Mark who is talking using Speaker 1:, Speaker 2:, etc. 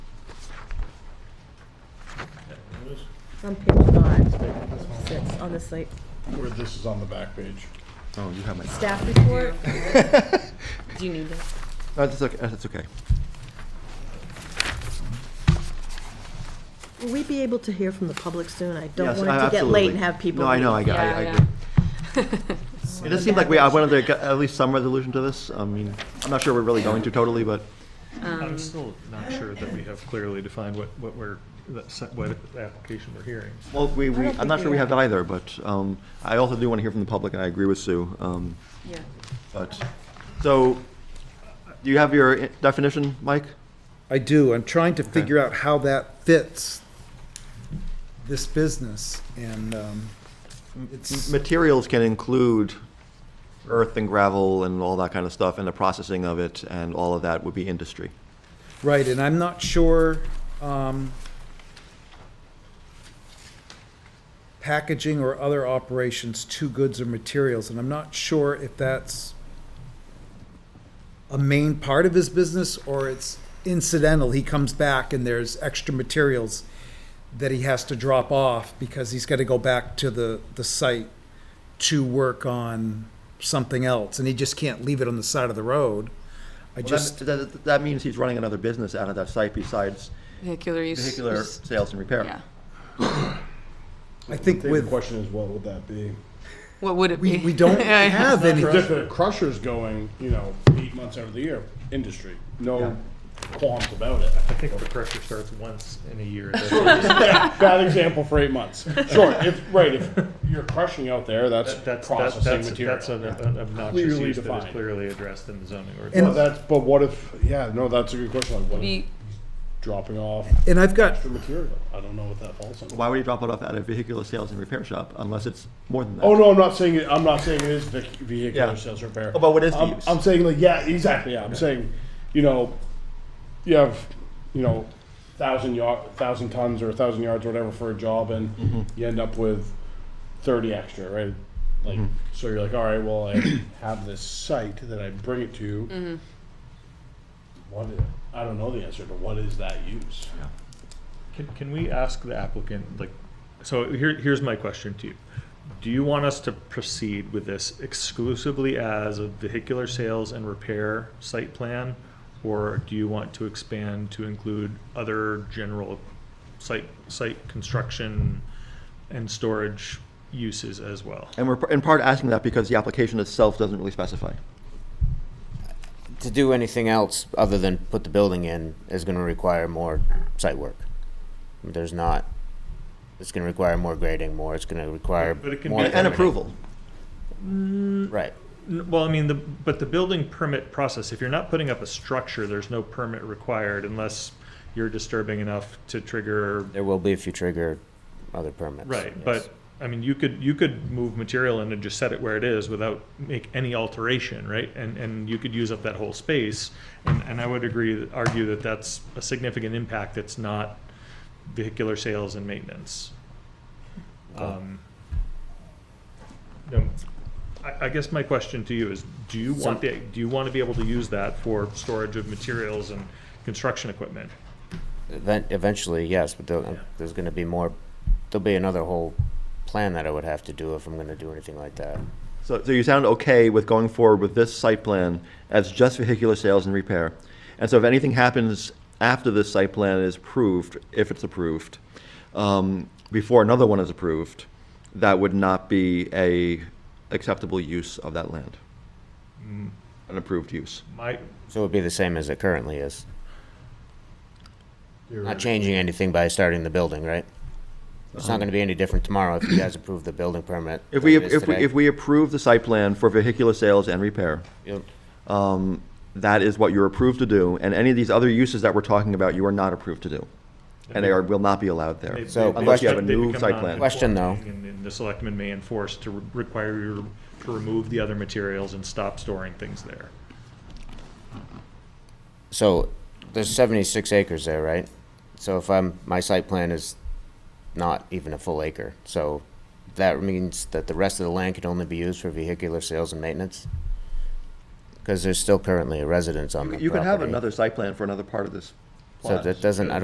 Speaker 1: on page five, six, on this like,
Speaker 2: where this is on the back page.
Speaker 3: Oh, you have my.
Speaker 1: staff report.
Speaker 4: Do you need it?
Speaker 3: Oh, that's okay. That's okay.
Speaker 1: Will we be able to hear from the public soon? I don't
Speaker 3: Yes,
Speaker 1: want it
Speaker 3: I-
Speaker 1: to get late and
Speaker 3: absolutely.
Speaker 1: have people.
Speaker 3: No, I know. I got. I, I agree. It does seem like we. I wanted to get at least some resolution to this. I mean, I'm not sure we're really going to totally, but
Speaker 5: I'm still not sure that we have clearly defined what, what we're, that se- what application we're hearing.
Speaker 3: well, we. we
Speaker 1: don't
Speaker 3: I'm not
Speaker 1: think
Speaker 3: sure
Speaker 1: we
Speaker 3: we have
Speaker 1: have.
Speaker 3: either, but um, I also do want to hear from the public, and I agree with Sue. Um,
Speaker 4: Yeah.
Speaker 3: but so, do you have your i- definition, Mike?
Speaker 6: I do. I'm trying to figure out how that fits this business and um, it's,
Speaker 3: Materials can include earth and gravel and all that kind of stuff, and the processing of it, and all of that would be industry.
Speaker 6: right, and I'm not sure, um, packaging or other operations to goods or materials, and I'm not sure if that's a main part of his business or it's incidental. He comes back and there's extra materials that he has to drop off because he's got to go back to the, the site to work on something else and he just can't leave it on the side of the road. I
Speaker 3: Well,
Speaker 6: just,
Speaker 3: that, that, that means he's running another business out of that site besides
Speaker 4: Vehicular use.
Speaker 3: vehicular
Speaker 4: is-
Speaker 3: sales and repair.
Speaker 4: Yeah.
Speaker 6: I think
Speaker 2: The
Speaker 6: with,
Speaker 2: question is, what would that be?
Speaker 4: What would it be?
Speaker 6: we, we don't
Speaker 4: Yeah, yeah.
Speaker 6: have any,
Speaker 2: If the crusher's going, you know, eight months out of the year, industry, no qualms about it.
Speaker 5: I think the pressure starts once in a year.
Speaker 2: Bad example for eight months. Sure, if, right, if you're crushing out there, that's
Speaker 5: That's, that's,
Speaker 2: processing
Speaker 5: that's,
Speaker 2: material.
Speaker 5: that's an an obnoxious
Speaker 2: Clearly
Speaker 5: use that
Speaker 2: defined.
Speaker 5: is clearly addressed in the zoning
Speaker 2: Well,
Speaker 5: ordinance.
Speaker 2: that's, but what if, yeah, no, that's a good question, like, what if
Speaker 4: Be-
Speaker 2: dropping off
Speaker 6: and I've got,
Speaker 2: the material? I don't know what that falls under.
Speaker 3: Why would you drop it off at a vehicular sales and repair shop unless it's more than that?
Speaker 2: Oh, no, I'm not saying, it I'm not saying it is vehic-
Speaker 3: Yeah.
Speaker 2: vehicular sales repair.
Speaker 3: Oh, but what is the
Speaker 2: I'm,
Speaker 3: use?
Speaker 2: I'm saying like, yeah, exactly, yeah, I'm saying, you know, you have, you know, thousand yard, thousand tons or a thousand yards or whatever for a job
Speaker 3: Mm-hmm.
Speaker 2: and you end up with thirty extra, right? Like,
Speaker 3: Mm-hmm.
Speaker 2: so you're like, all right, well, I have this site that I bring it to. What, i- I don't know the answer to what is that use?
Speaker 5: Can, can we ask the applicant, like, so here, here's my question to you. Do you want us to proceed with this exclusively as a vehicular sales and repair site plan? Or do you want to expand to include other general site, site construction and storage uses as well?
Speaker 3: And we're in part asking that because the application itself doesn't really specify.
Speaker 7: to do anything else other than put the building in is gonna require more site work. There's not, it's gonna require more grading, more, it's gonna require
Speaker 5: But it can
Speaker 7: more.
Speaker 5: be-
Speaker 3: And, and
Speaker 7: permitting.
Speaker 3: approval.
Speaker 7: Right,
Speaker 5: N- Well, I mean, the, but the building permit process, if you're not putting up a structure, there's no permit required unless you're disturbing enough to trigger
Speaker 7: there will be if you trigger other permits.
Speaker 5: Right,
Speaker 7: yes.
Speaker 5: but, I mean, you could, you could move material in and just set it where it is without make any alteration, right? And, and you could use up that whole space, and, and I would agree, argue that that's a significant impact that's not vehicular sales and maintenance. Um, um, I, I guess my question to you is, do you want, the- do you want to be able to use that for storage of materials and construction equipment?
Speaker 7: Event, eventually, yes, but there'll- there's gonna be more, there'll be another whole plan that I would have to do if I'm gonna do anything like that.
Speaker 3: So, so you sound okay with going forward with this site plan as just vehicular sales and repair. And so if anything happens after this site plan is approved, if it's approved, um, before another one is approved, that would not be a acceptable use of that land.
Speaker 7: Mm.
Speaker 3: An approved use.
Speaker 5: My,
Speaker 7: So it would be the same as it currently is. Not changing anything by starting the building, right? It's not gonna be any different tomorrow if you guys approve the building permit.
Speaker 3: If
Speaker 7: than
Speaker 3: we,
Speaker 7: it is
Speaker 3: if we,
Speaker 7: today.
Speaker 3: if we approve the site plan for vehicular sales and repair,
Speaker 7: You'll-
Speaker 3: um, that is what you're approved to do, and any of these other uses that we're talking about, you are not approved to do. And they are, will not be allowed there.
Speaker 5: They-
Speaker 7: So,
Speaker 5: they-
Speaker 7: unless
Speaker 5: they-
Speaker 7: you have
Speaker 3: a
Speaker 5: they
Speaker 3: new
Speaker 5: become
Speaker 3: site plan.
Speaker 7: Question, though.
Speaker 5: non-conforming, And and the selectmen may enforce to re- require you to remove the other materials and stop storing things there.
Speaker 7: So there's 76 acres there, right? So if I'm, my site plan is not even a full acre. So that means that the rest of the land can only be used for vehicular sales and maintenance? Because there's still currently a residence on the property.
Speaker 3: You could have another site plan for another part of this.
Speaker 7: So that doesn't, I